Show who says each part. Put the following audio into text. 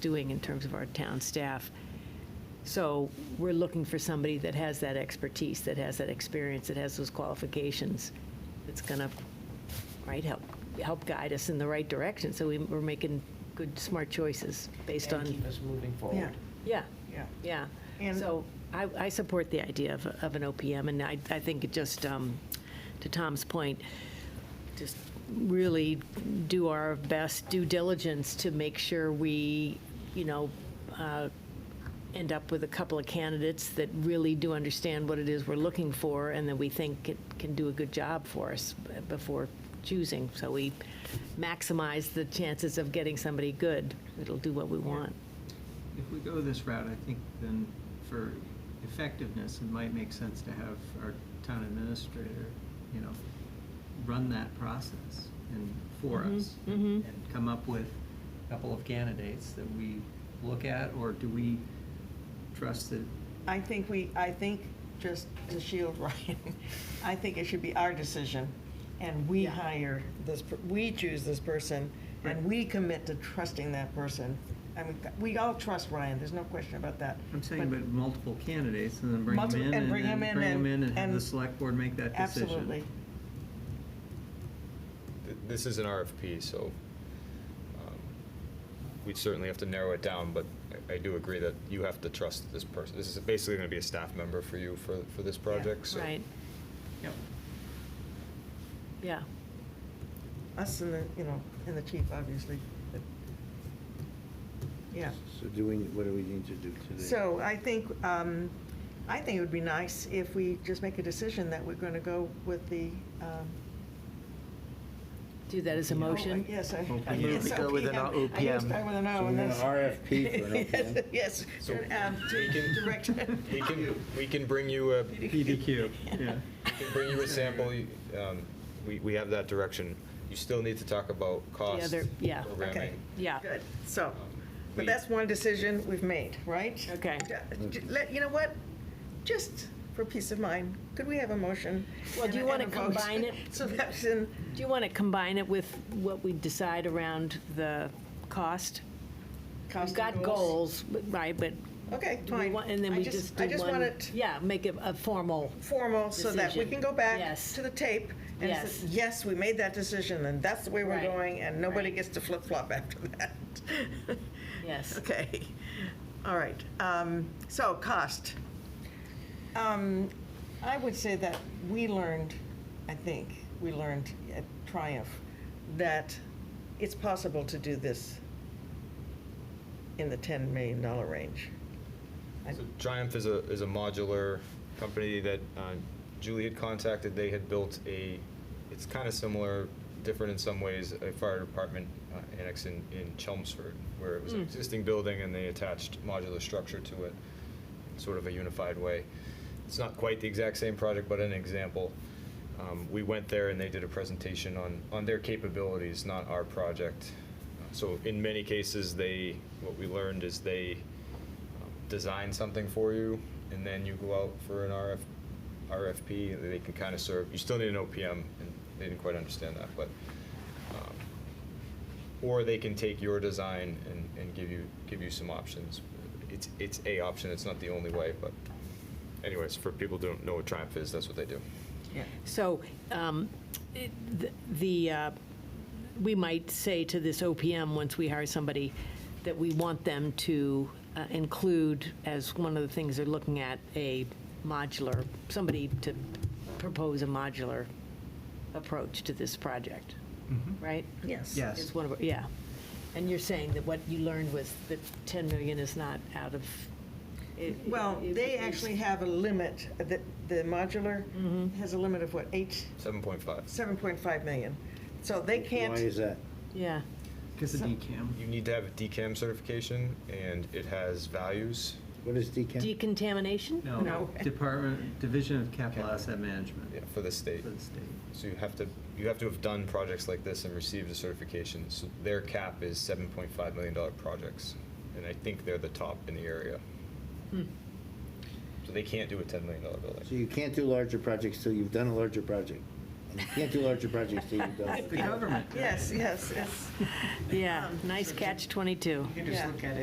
Speaker 1: doing in terms of our town staff. So we're looking for somebody that has that expertise, that has that experience, that has those qualifications, that's going to, right, help, help guide us in the right direction. So we- we're making good, smart choices based
Speaker 2: And keep
Speaker 1: on,
Speaker 2: us moving forward.
Speaker 1: yeah,
Speaker 3: yeah.
Speaker 1: yeah.
Speaker 3: And-
Speaker 1: So I, I support the idea of, of an OPM, and I, I think it just, um, to Tom's point, just really do our best due diligence to make sure we, you know, uh, end up with a couple of candidates that really do understand what it is we're looking for and that we think it can do a good job for us b- before choosing. So we maximize the chances of getting somebody good. It'll do what we want.
Speaker 4: If we go this route, I think then for effectiveness, it might make sense to have our town administrator, you know, run that process and for
Speaker 3: Mm-hmm,
Speaker 1: Mhm,
Speaker 4: us.
Speaker 1: mhm.
Speaker 4: And come up with a couple of candidates that we look at, or do we trust that?
Speaker 3: I think we, I think, just to shield Ryan, I think it should be our decision, and we
Speaker 1: Yeah.
Speaker 3: hire this, per- we choose this person, and
Speaker 4: Right.
Speaker 3: we commit to trusting that person. I mean, we all trust Ryan, there's no question about that.
Speaker 4: I'm saying, but multiple candidates and then bring them
Speaker 3: Multiple-
Speaker 4: in
Speaker 3: and
Speaker 4: and
Speaker 3: bring
Speaker 4: then
Speaker 3: 'em in
Speaker 4: bring them
Speaker 3: and-
Speaker 4: in and have the
Speaker 3: and-
Speaker 4: select board make that decision.
Speaker 3: Absolutely.
Speaker 5: Th- This is an RFP, so um, we'd certainly have to narrow it down, but I- I do agree that you have to trust this person. This is basically going to be a staff member for you for, for this project, so.
Speaker 1: Right,
Speaker 4: Yep.
Speaker 1: yeah.
Speaker 3: Us and the, you know, and the chief, obviously. but- Yeah.
Speaker 6: So do we, what do we need to do today?
Speaker 3: So I think, um, I think it would be nice if we just make a decision that we're going to go with the. um,
Speaker 1: Do that as a motion?
Speaker 3: Yes, Oh, I.
Speaker 4: OPM.
Speaker 3: I guess
Speaker 4: We
Speaker 2: go with an
Speaker 3: OPM. I guess
Speaker 2: OPM.
Speaker 3: I with an O.
Speaker 6: So we want
Speaker 3: and that's-
Speaker 6: an RFP for an OPM?
Speaker 3: Yes,
Speaker 5: So
Speaker 3: um,
Speaker 5: we can-
Speaker 3: director.
Speaker 5: We can, we can bring you a, we
Speaker 4: PDQ, yeah.
Speaker 5: can bring you a sample. you- um, We, we have that direction. You still need to talk about cost,
Speaker 1: other- yeah.
Speaker 3: Okay.
Speaker 5: programming. Um,
Speaker 1: Yeah.
Speaker 3: Good, so, but
Speaker 5: We-
Speaker 3: that's one decision we've made, right?
Speaker 1: Okay.
Speaker 3: Ju- Let, you know what, just for peace of mind, could we have a motion?
Speaker 1: Well, do you
Speaker 3: and-
Speaker 1: wanna
Speaker 3: and a vote?
Speaker 1: combine it?
Speaker 3: So that's in,
Speaker 1: Do you want to combine it with what we decide around the cost?
Speaker 3: cost
Speaker 1: We've got
Speaker 3: of
Speaker 1: goals,
Speaker 3: goals.
Speaker 1: but- right, but
Speaker 3: Okay,
Speaker 1: do we
Speaker 3: fine.
Speaker 1: want, and then
Speaker 3: I
Speaker 1: we just do
Speaker 3: I just want
Speaker 1: one.
Speaker 3: it
Speaker 1: Yeah, make it a formal,
Speaker 3: formal, so that we
Speaker 1: Decision.
Speaker 3: can go back
Speaker 1: Yes.
Speaker 3: to the tape and say,
Speaker 1: Yes.
Speaker 3: yes, we made that decision, and that's the way we're
Speaker 1: Right.
Speaker 3: going, and nobody
Speaker 1: Right.
Speaker 3: gets to flip-flop after that.
Speaker 1: yes.
Speaker 3: Okay, all right, um, so cost. Um, I would say that we learned, I think, we learned at Triumph, that it's possible to do this in the $10 million range. I-
Speaker 5: So Triumph is a, is a modular company that uh, Julie had contacted. They had built a, it's kind of similar, different in some ways, a fire department uh, annex in, in Chelmsford, where it was an existing building and they attached modular structure to it, in sort of a unified way. It's not quite the exact same project, but an example. Um, We went there and they did a presentation on, on their capabilities, not our project. So in many cases, they, what we learned is they design something for you, and then you go out for an RF, RFP, and they can kind of serve, you still need an OPM, and they didn't quite understand that, but, um, or they can take your design and, and give you, give you some options. It's, it's a option, it's not the only way, but anyways, for people who don't know what Triumph is, that's what they do.
Speaker 1: So um, it- th- the, uh, we might say to this OPM, once we hire somebody, that we want them to uh, include, as one of the things they're looking at, a modular, somebody to propose a modular approach to this project, right?
Speaker 3: Yes.
Speaker 4: Yes.
Speaker 1: It's one of, our- yeah. And you're saying that what you learned was that 10 million is not out of. it-
Speaker 3: Well,
Speaker 1: it-
Speaker 3: they
Speaker 1: it's-
Speaker 3: actually have a limit, the, the modular has a limit of what, eight,
Speaker 5: Seven point five.
Speaker 3: 7.5 million. So they
Speaker 6: Why
Speaker 3: can't,
Speaker 6: is that?
Speaker 1: Yeah,
Speaker 4: Because of DCAM.
Speaker 5: You need to have a DCAM certification, and it has values.
Speaker 6: What is decant?
Speaker 1: decontamination?
Speaker 4: No,
Speaker 3: No.
Speaker 4: Department, Division of Capital Asset Management.
Speaker 5: Yeah, for the state.
Speaker 4: For the state.
Speaker 5: So you have to, you have to have done projects like this and received a certification. So their cap is seven point five million dollar projects, and I think they're the top in the area.
Speaker 1: Hmm.
Speaker 5: So they can't do a ten million dollar
Speaker 6: So
Speaker 5: building.
Speaker 6: you can't do larger projects till you've done a larger project. And you can't do larger projects till you've done.
Speaker 4: The government.
Speaker 3: yes, yes, yes.
Speaker 1: Yeah, nice catch 22.
Speaker 2: You can just
Speaker 3: Yeah.
Speaker 2: look at it